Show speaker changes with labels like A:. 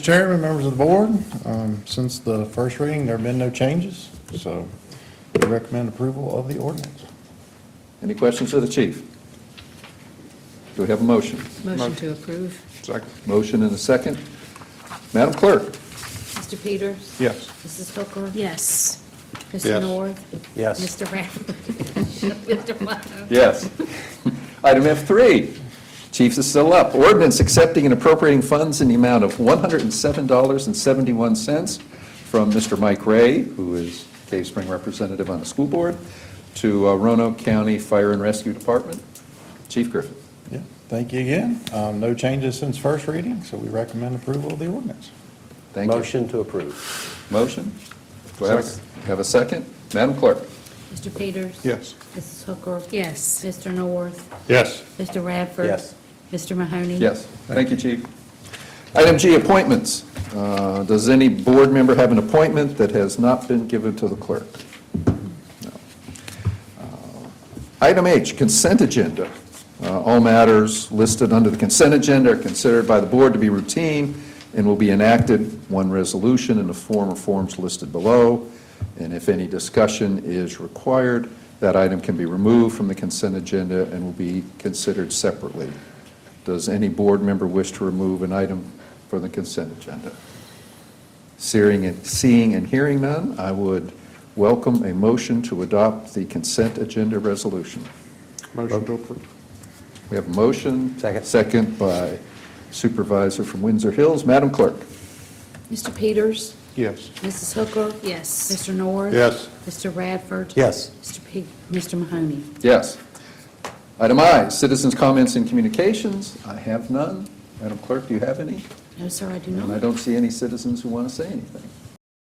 A: Chairman, members of the board, um, since the first reading, there have been no changes, so we recommend approval of the ordinance.
B: Any questions of the chief? Do we have a motion?
C: Motion to approve.
B: Second. Motion and a second. Madam Clerk?
C: Mr. Peters?
A: Yes.
C: Mrs. Hooker?
D: Yes.
C: Mr. North?
A: Yes.
C: Mr. Radford? Mr. Wonderful?
B: Yes. Item F3, Chief is still up. Ordinance accepting and appropriating funds in the amount of $107.71 from Mr. Mike Ray, who is Cave Spring representative on the school board, to uh, Roanoke County Fire and Rescue Department. Chief Griffin.
A: Yeah, thank you again. Um, No changes since first reading, so we recommend approval of the ordinance.
B: Thank you.
E: Motion to approve.
B: Motion? Do I have a- have a second? Madam Clerk?
C: Mr. Peters?
A: Yes.
C: Mrs. Hooker?
D: Yes.
C: Mr. North?
A: Yes.
C: Mr. Radford?
E: Yes.
C: Mr. Mahoney?
B: Yes, thank you, Chief. Item G, appointments. Uh, Does any board member have an appointment that has not been given to the clerk? No. Uh, Item H, consent agenda. Uh, All matters listed under the consent agenda are considered by the board to be routine and will be enacted one resolution in the form or forms listed below, and if any discussion is required, that item can be removed from the consent agenda and will be considered separately. Does any board member wish to remove an item from the consent agenda? Seeing and, seeing and hearing none, I would welcome a motion to adopt the consent agenda resolution.
E: Motion to approve.
B: We have a motion.
E: Second.
B: Second by Supervisor from Windsor Hills. Madam Clerk?
C: Mr. Peters?
E: Yes.
C: Mrs. Hooker?
D: Yes.
C: Mr. North?
E: Yes.
C: Mr. Radford?
E: Yes.
C: Mr. Pe, Mr. Mahoney?
B: Yes. Item I, citizens' comments and communications. I have none. Madam Clerk, do you have any?
C: No, sir, I do
B: And I
C: not.
B: don't see any citizens who want to say anything.